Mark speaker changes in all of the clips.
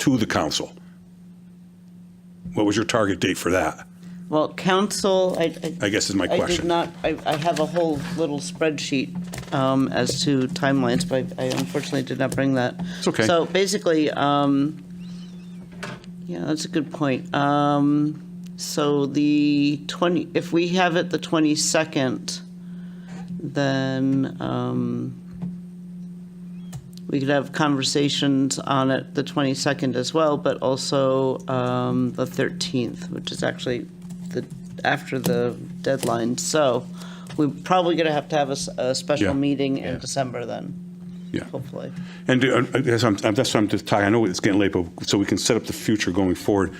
Speaker 1: to the council. What was your target date for that?
Speaker 2: Well, council, I, I.
Speaker 1: I guess is my
Speaker 2: I did
Speaker 1: question.
Speaker 2: not, I, I have a whole little spreadsheet um, as to timelines, but I unfortunately did not bring that.
Speaker 1: It's okay.
Speaker 2: So basically, um, yeah, that's a good point. Um, so the 20, if we have it the 22nd, then um, we could have conversations on it the 22nd as well, but also um, the 13th, which is actually the, after the deadline. So we're probably going to have to have a, s- a
Speaker 1: Yeah.
Speaker 2: special meeting
Speaker 3: Yeah.
Speaker 2: in December then,
Speaker 1: Yeah.
Speaker 2: hopefully.
Speaker 1: And do- uh, I guess I'm, I'm- that's what I'm just talking, I know it's getting late, but so we can set up the future going forward.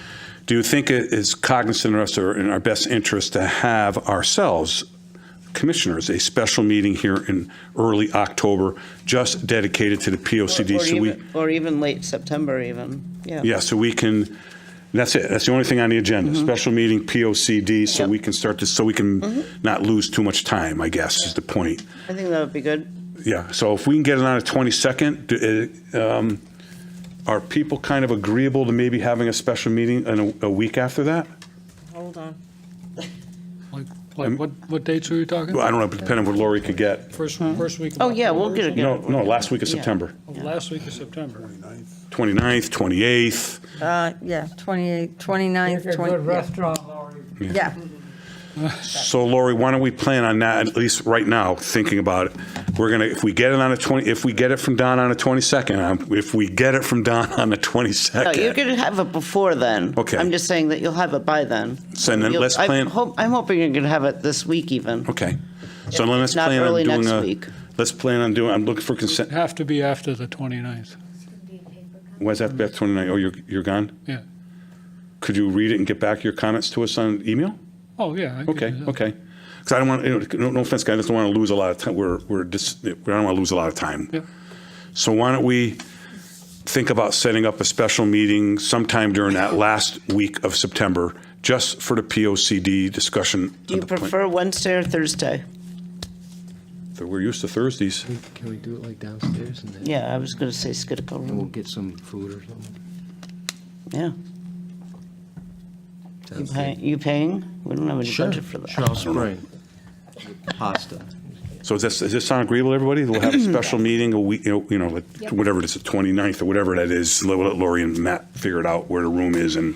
Speaker 1: Do you think it is cognizant of us or in our best interest to have ourselves, commissioners, a special meeting here in early October, just dedicated to the POCD?
Speaker 2: Or
Speaker 1: so we-
Speaker 2: even, or even late September even, yeah.
Speaker 1: Yeah, so we can, that's it, that's the only thing on the agenda, special meeting, POCD, so
Speaker 2: Mm-hmm. Yep. Mm-hmm.
Speaker 1: we can start this, so we can not lose too much time, I guess, is the point.
Speaker 2: I think that would be good.
Speaker 1: Yeah, so if we can get it on the 22nd, do- uh, um, are people kind of agreeable to maybe having a special meeting in a, a week after that?
Speaker 4: Hold on.
Speaker 5: Like, like what, what dates were you talking?
Speaker 1: Well, I don't know, depending on what Lori could get.
Speaker 5: First, first week of
Speaker 2: Oh, yeah, we'll
Speaker 5: October or
Speaker 2: get it
Speaker 5: something?
Speaker 1: No, no, last week of
Speaker 2: Yeah.
Speaker 1: September,
Speaker 2: Yeah.
Speaker 5: Last week of September.
Speaker 1: 29th, 28th,
Speaker 4: Uh, yeah, 28th, 29th, 20th.
Speaker 6: restaurant, Laurie.
Speaker 4: Yeah,
Speaker 1: So Lori, why don't we plan on that, at least right now, thinking about it? We're gonna, if we get it on the 20, if we get it from Don on the 22nd, um, if we get it from Don on the
Speaker 2: No, you're
Speaker 1: 22nd,
Speaker 2: going to have it before then.
Speaker 1: Okay.
Speaker 2: I'm just saying that you'll have it by then.
Speaker 1: So then
Speaker 2: You'll-
Speaker 1: let's
Speaker 2: I'm
Speaker 1: plan-
Speaker 2: hope- I'm hoping you're going to have it this week even.
Speaker 1: okay. So then let's
Speaker 2: Not
Speaker 1: plan on
Speaker 2: early
Speaker 1: doing
Speaker 2: next
Speaker 1: a,
Speaker 2: week.
Speaker 1: let's plan on doing, I'm looking for
Speaker 5: It'd
Speaker 1: consent,
Speaker 5: Have to be after the 29th,
Speaker 1: when's that, Beth, 29? Oh, you're, you're gone?
Speaker 5: yeah.
Speaker 1: Could you read it and get back your comments to us on email?
Speaker 5: Oh, yeah. I can
Speaker 1: Okay,
Speaker 5: do that.
Speaker 1: okay. Because I don't want, you know, no- no offense, guys, I just don't want to lose a lot of time, we're, we're just, I don't want to lose a lot of time.
Speaker 5: Yeah.
Speaker 1: So why don't we think about setting up a special meeting sometime during that last week of September, just for the POCD discussion?
Speaker 2: Do you
Speaker 1: of the plan-
Speaker 2: prefer Wednesday or Thursday?
Speaker 1: We're used to Thursdays.
Speaker 7: Can we do it like downstairs and then
Speaker 2: Yeah, I was going to say Skidco
Speaker 7: we'll
Speaker 2: room,
Speaker 7: get some food or something?
Speaker 2: yeah. You
Speaker 7: Sounds
Speaker 2: pay-
Speaker 7: good.
Speaker 2: You paying? We don't have any
Speaker 7: Sure,
Speaker 2: budget for that.
Speaker 7: sure, I'll spring. Pasta.
Speaker 1: So is this, is this sound agreeable to everybody? We'll have a special meeting a week, you know, you know, like, whatever it is, the 29th or whatever that is. We'll let Lori and Matt figure it out where the room is and,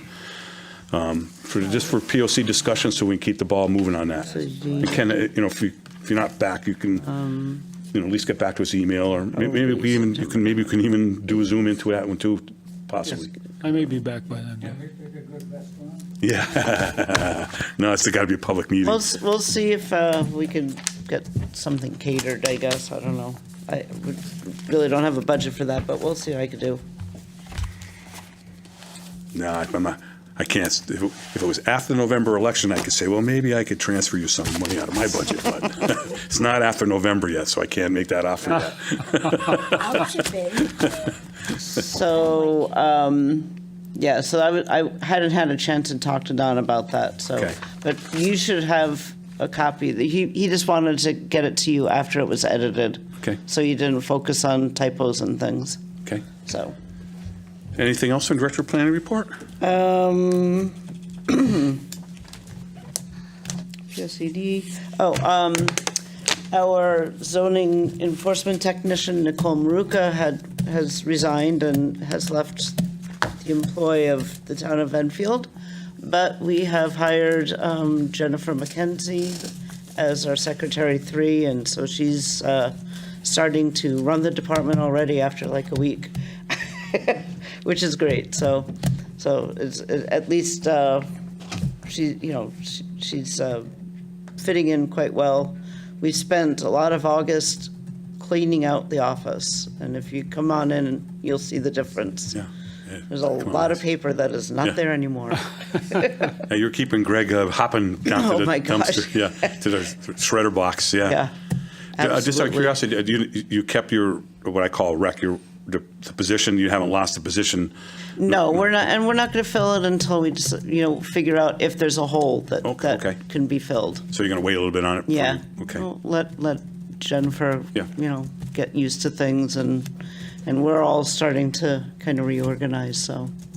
Speaker 1: um, for, just for POC discussion so we can keep the ball moving on that. You can, uh, you know, if you, if you're not back, you can, you know, at least get back to us email or may- maybe we even, you can, maybe you can even do a Zoom into that one too, possibly.
Speaker 5: I may be back by then, yeah.
Speaker 1: Yeah. No, it's gotta be a public meeting.
Speaker 2: We'll, s- we'll see if uh, we can get something catered, I guess, I don't know. I would- really don't have a budget for that, but we'll see what I could do.
Speaker 1: No, I- I'm not, I can't, if it- if it was after the November election, I could say, well, maybe I could transfer you some money out of my budget, but it's not after November yet, so I can't make that offer yet.
Speaker 2: Ah. So, um, yeah, so I would- I hadn't had a chance to talk to Don about that, so.
Speaker 1: Okay.
Speaker 2: But you should have a copy. He, he just wanted to get it to you after it was edited.
Speaker 1: Okay.
Speaker 2: So you didn't focus on typos and things,
Speaker 1: Okay.
Speaker 2: so.
Speaker 1: Anything else on Director Planning Report?
Speaker 2: Um, PSCD, oh, um, our zoning enforcement technician, Nicole Maruka, had, has resigned and has left the employ of the town of Enfield. But we have hired, um, Jennifer McKenzie as our secretary three, and so she's, uh, starting to run the department already after like a week which is great. So, so it's it- at least uh, she, you know, she, she's uh, fitting in quite well. We spent a lot of August cleaning out the office, and if you come on in, you'll see the difference.
Speaker 1: Yeah. Yeah,
Speaker 2: There's a
Speaker 1: come on,
Speaker 2: lot of
Speaker 1: guys.
Speaker 2: paper that is
Speaker 1: Yeah.
Speaker 2: not there anymore.
Speaker 1: Now, You're keeping Greg uh, hopping down
Speaker 2: Oh,
Speaker 1: to the
Speaker 2: my gosh.
Speaker 1: dumpster. Yeah, to the shredder box, yeah. Uh,
Speaker 2: Yeah.
Speaker 1: Just out of
Speaker 2: absolutely.
Speaker 1: curiosity, uh, do you, you kept your, what I call rec, your, the the position, you haven't lost the position?
Speaker 2: No, we're not, and we're not going to fill it until we just, you know, figure out if there's a hole that,
Speaker 1: Okay, okay.
Speaker 2: that can be filled.
Speaker 1: So you're going to wait a little bit on it? before
Speaker 2: Yeah.
Speaker 1: you- Okay.
Speaker 2: Well, Let, let Jennifer,
Speaker 1: Yeah.
Speaker 2: you know, get used to things and And we're all starting to kind of reorganize, so.